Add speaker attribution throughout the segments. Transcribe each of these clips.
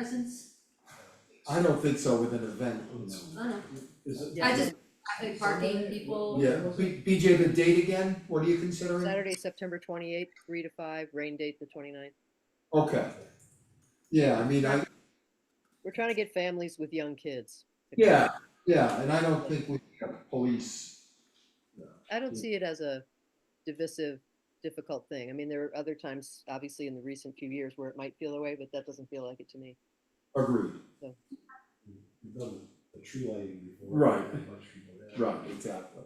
Speaker 1: presence,
Speaker 2: I don't think so with an event.
Speaker 1: I don't know,
Speaker 3: Is it?
Speaker 1: I just, I think parking, people,
Speaker 2: Yeah, B- BJ, the date again, what are you considering?
Speaker 4: Saturday, September twenty-eighth, three to five, rain date the 29th.
Speaker 2: Okay. Yeah, I mean, I,
Speaker 4: We're trying to get families with young kids. to come.
Speaker 2: yeah, yeah, and I don't think we have police.
Speaker 4: I don't see it as a divisive, difficult thing. I mean, there are other times, obviously, in the recent few years where it might feel that way, but that doesn't feel like it to me.
Speaker 2: Agreed.
Speaker 3: We've done the tree lighting before.
Speaker 2: Right.
Speaker 3: a bunch of people there.
Speaker 2: Right, exactly.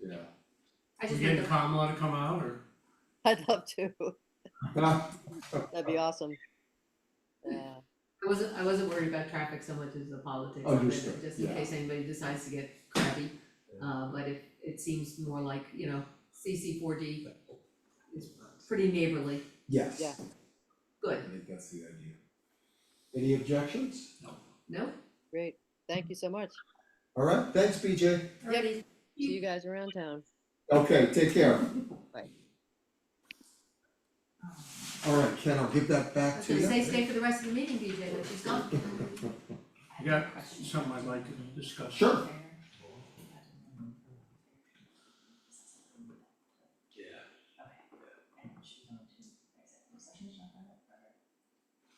Speaker 2: Yeah.
Speaker 1: I
Speaker 5: You
Speaker 1: just think
Speaker 5: get
Speaker 1: the
Speaker 5: Kamala to come out or?
Speaker 4: I'd love to.
Speaker 2: Huh?
Speaker 4: That'd be awesome. Uh, Yeah.
Speaker 1: I wasn't, I wasn't worried about traffic so much as the politics of
Speaker 2: Understood,
Speaker 1: it, just in
Speaker 2: yeah.
Speaker 1: case anybody decides to get crabby. Uh, but if, it seems more like, you know, CC four D is pretty neighborly,
Speaker 2: Yes.
Speaker 4: Yeah.
Speaker 1: good,
Speaker 2: I think that's the idea. Any objections?
Speaker 1: no?
Speaker 4: Great. Thank you so much.
Speaker 2: All right, thanks, BJ.
Speaker 1: Alrighty.
Speaker 4: See you guys around town.
Speaker 2: Okay, take care.
Speaker 4: Bye.
Speaker 2: All right, Ken, I'll give that
Speaker 1: I
Speaker 2: back
Speaker 1: was
Speaker 2: to you.
Speaker 1: gonna say, stay for the rest of the meeting, BJ, but she's gone.
Speaker 5: You got something I'd like to discuss.
Speaker 2: Sure.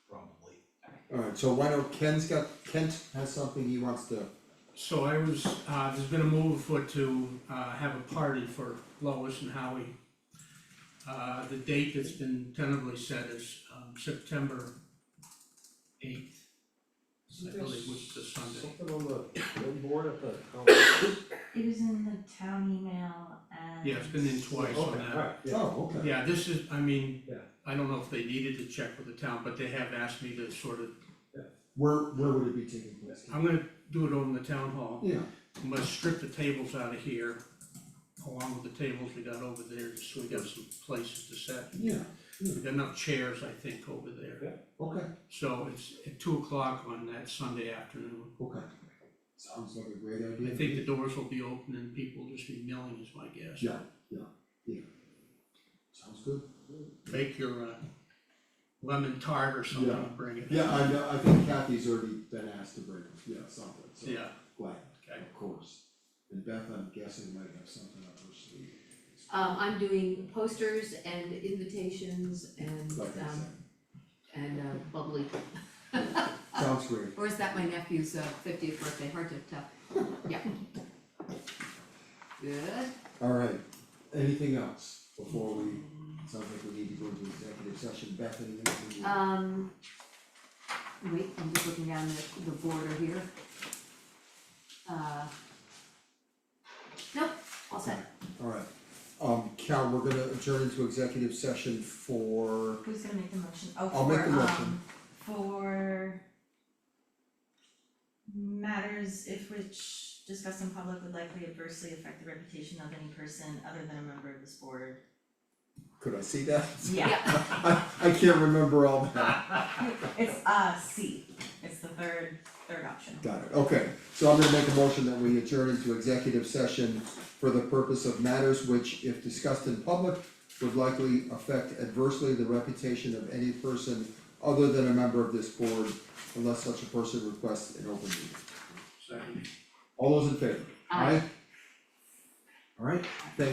Speaker 3: Probably.
Speaker 2: All right, so why don't, Ken's got, Kent has something he wants to,
Speaker 5: So I was, uh, there's been a move for to, uh, have a party for Lois and Howie. Uh, the date that's been tentatively set is, um, September eighth. I believe which is a Sunday.
Speaker 3: Something on the one board at the conference.
Speaker 6: It was in the town email and.
Speaker 5: Yeah, it's been in twice on
Speaker 3: Okay,
Speaker 5: that.
Speaker 3: alright, yeah.
Speaker 2: oh, okay.
Speaker 5: Yeah, this is, I mean,
Speaker 3: Yeah.
Speaker 5: I don't know if they needed to check with the town, but they have asked me to sort of,
Speaker 2: Where, where would it be taking place? Ken?
Speaker 5: I'm gonna do it over in the town hall.
Speaker 2: Yeah,
Speaker 5: I'm gonna strip the tables out of here, along with the tables we got over there, just so we got some places to set.
Speaker 2: yeah,
Speaker 5: We got enough chairs, I think, over there.
Speaker 2: okay,
Speaker 5: So it's at two o'clock on that Sunday afternoon.
Speaker 2: okay. Sounds like a great
Speaker 5: I
Speaker 2: idea.
Speaker 5: think the doors will be open and people will just be milling is my guess.
Speaker 2: Yeah, yeah, yeah. Sounds good.
Speaker 5: Bake your uh, lemon tart or something,
Speaker 2: Yeah.
Speaker 5: and bring it.
Speaker 2: Yeah, I know, I think Kathy's already been asked to bring, yeah, something, so.
Speaker 5: Yeah,
Speaker 2: Glad,
Speaker 5: okay.
Speaker 2: of course. And Beth, I'm guessing might have something up her sleeve.
Speaker 1: Um, I'm doing posters and invitations and,
Speaker 2: Like I
Speaker 1: um,
Speaker 2: said,
Speaker 1: and uh, bubbly. uh,
Speaker 2: sounds great.
Speaker 1: Or is that my nephew's uh, fiftieth birthday, hard to tell, yeah. Good,
Speaker 2: All right, anything else before we, sounds like we need to go into executive session, Bethany, anything you?
Speaker 1: um. Wait, I'm just looking down the, the border here. Uh. Nope, all set,
Speaker 2: All right, um, Cal, we're gonna adjourn into executive session for,
Speaker 6: Who's gonna make the motion? Oh,
Speaker 2: I'll make
Speaker 6: for,
Speaker 2: the motion.
Speaker 6: um, for matters if which discussed in public would likely adversely affect the reputation of any person other than a member of this board.
Speaker 2: could I see that?
Speaker 6: Yeah,
Speaker 2: I, I can't remember all that,
Speaker 6: it's uh C, it's the third, third option.
Speaker 2: got it, okay. So I'm gonna make a motion that we adjourn into executive session for the purpose of matters which, if discussed in public, would likely affect adversely the reputation of any person other than a member of this board unless such a person requests an open meeting.
Speaker 5: Second.
Speaker 2: All those in favor?
Speaker 1: Aye.
Speaker 2: Alright, thank